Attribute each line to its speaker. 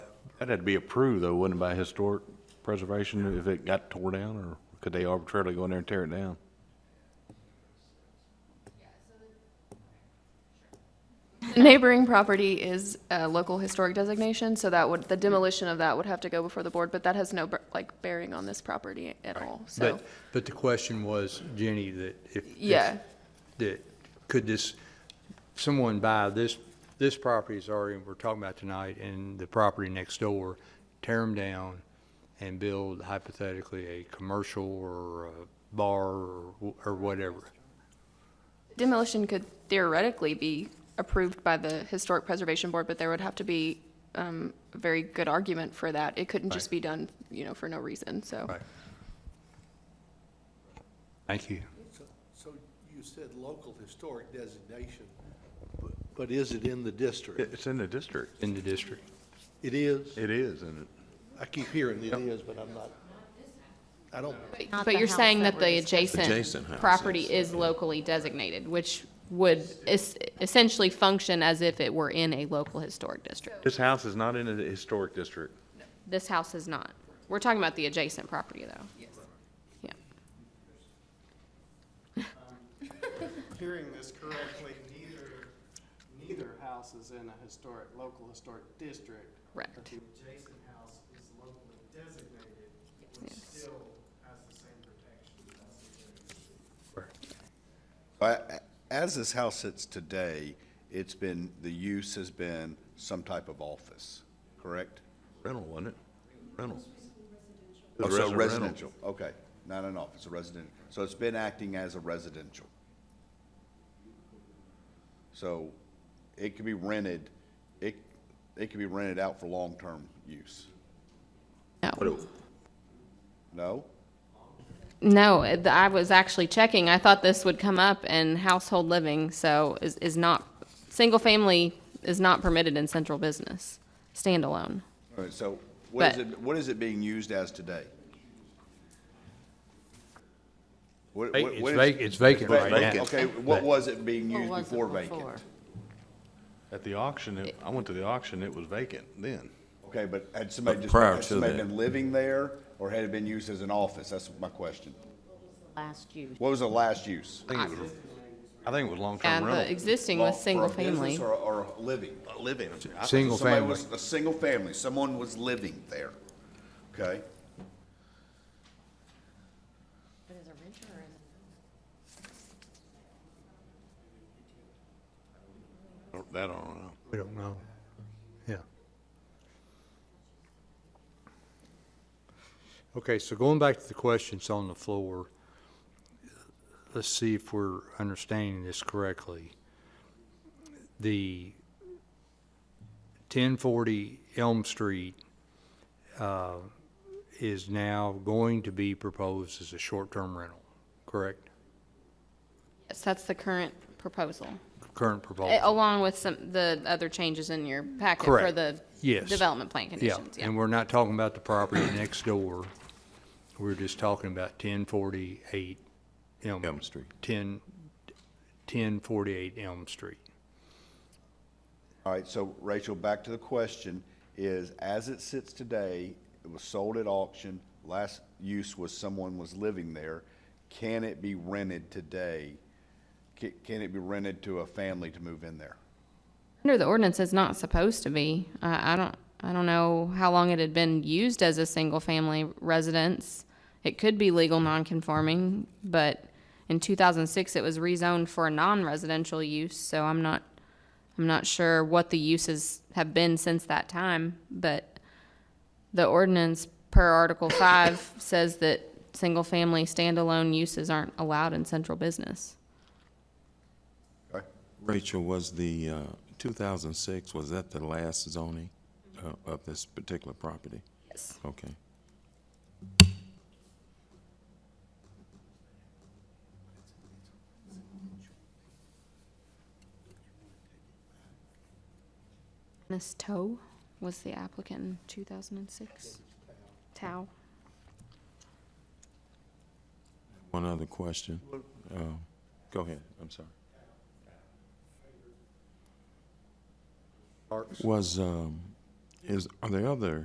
Speaker 1: That had to be approved though, wouldn't it, by historic preservation if it got tore down, or could they arbitrarily go in there and tear it down?
Speaker 2: Neighboring property is a local historic designation, so that would, the demolition of that would have to go before the board, but that has no, like, bearing on this property at all, so.
Speaker 3: But, but the question was, Jenny, that if. if-
Speaker 2: Yeah.
Speaker 3: That, could this, someone buy this, this property is already, we're talking about tonight, and the property next door, tear them down and build hypothetically a commercial or a bar or, wh- or whatever?
Speaker 2: Demolition could theoretically be approved by the Historic Preservation Board, but there would have to be um, a very good argument for that. It couldn't just
Speaker 3: Right.
Speaker 2: be done, you know, for no reason, so.
Speaker 3: Right. Thank you.
Speaker 4: So- So you said local historic designation, but- but is it in the district?
Speaker 1: It's in the district.
Speaker 3: In the district.
Speaker 4: It is?
Speaker 1: It is, isn't it?
Speaker 4: I keep hearing it is, but I'm not, I don't,
Speaker 5: Not
Speaker 6: But
Speaker 5: the
Speaker 6: you're
Speaker 5: house
Speaker 6: saying
Speaker 5: that
Speaker 6: that
Speaker 5: we're
Speaker 6: the
Speaker 5: discussing.
Speaker 6: adjacent property is locally designated, which would es- essentially function as if it were in a local historic district.
Speaker 1: This house is not in the historic district.
Speaker 6: This house is not. We're talking about the adjacent property, though. Yes. Yeah.
Speaker 7: hearing this correctly, neither, neither house is in a historic, local historic district. But
Speaker 6: Correct.
Speaker 7: the adjacent house is locally designated, which
Speaker 6: Yes.
Speaker 7: still has the same protection as the adjacent.
Speaker 8: Uh, As this house sits today, it's been, the use has been some type of office, correct?
Speaker 1: Rental, wasn't it? Rental.
Speaker 8: Oh,
Speaker 1: It was resi-
Speaker 8: so
Speaker 1: rental.
Speaker 8: residential, okay, not an office, a residential. So it's been acting as a residential. So it could be rented, it, it could be rented out for long-term use,
Speaker 6: No,
Speaker 8: no?
Speaker 6: no, it- I was actually checking. I thought this would come up in household living, so is, is not, single-family is not permitted in central business, standalone.
Speaker 8: All right, so what is
Speaker 6: But-
Speaker 8: it, what is it being used as today? What- what-
Speaker 3: It's
Speaker 8: what
Speaker 3: vac-
Speaker 8: is-
Speaker 3: it's vacant right now.
Speaker 8: Okay, what was it being
Speaker 5: What
Speaker 8: used
Speaker 5: was it
Speaker 8: before
Speaker 5: before?
Speaker 8: vacant?
Speaker 1: At the auction, it- I went to the auction, it was vacant then.
Speaker 8: Okay, but had somebody
Speaker 9: But
Speaker 8: just,
Speaker 9: prior
Speaker 8: had
Speaker 9: to
Speaker 8: somebody
Speaker 9: that.
Speaker 8: been living there, or had it been used as an office? That's my question.
Speaker 5: Last use.
Speaker 8: What was the last use?
Speaker 1: I think it was, I think it was
Speaker 6: Yeah,
Speaker 1: long-term
Speaker 6: the
Speaker 1: rental.
Speaker 6: existing
Speaker 8: Well,
Speaker 6: was
Speaker 8: For a business
Speaker 6: single-family.
Speaker 8: or, or a living?
Speaker 1: Living. I-
Speaker 3: Single
Speaker 8: Somebody
Speaker 3: family.
Speaker 8: was, a single family, someone was living there, okay?
Speaker 5: But as a renter or as a
Speaker 1: That I don't know.
Speaker 3: We don't know. Yeah. Okay, so going back to the questions on the floor, let's see if we're understanding this correctly. The ten forty Elm Street, uh, is now going to be proposed as a short-term rental, correct?
Speaker 6: Yes, that's the current proposal.
Speaker 3: Current
Speaker 8: Oh.
Speaker 3: proposal.
Speaker 6: A- Along with some, the other changes in your packet for
Speaker 3: Correct.
Speaker 6: the
Speaker 3: Yes.
Speaker 6: development plan
Speaker 3: Yeah,
Speaker 6: conditions,
Speaker 3: and
Speaker 6: yeah.
Speaker 3: we're not talking about the property next door. We're just talking about ten forty-eight Elm.
Speaker 9: Elm Street.
Speaker 3: 10 1048 Elm Street.
Speaker 8: All right, so Rachel, back to the question, is as it sits today, it was sold at auction, last use was someone was living there, can it be rented today? Can, can it be rented to a family to move in there?
Speaker 6: Under the ordinance, it's not supposed to be. I, I don't, I don't know how long it had been used as a single-family residence. It could be legal non-conforming, but in two thousand six, it was rezoned for a non-residential use, so I'm not, I'm not sure what the uses have been since that time, but the ordinance per Article five says that single-family standalone uses aren't allowed in central business.
Speaker 8: Okay?
Speaker 9: Rachel, was the, uh, 2006, was that the last zoning uh, of this particular property?
Speaker 6: Yes.
Speaker 9: Okay.
Speaker 6: Ms. Toe was the applicant in 2006. Tao.
Speaker 9: One other question. Uh, Go ahead, I'm sorry. Was, um, is, are there other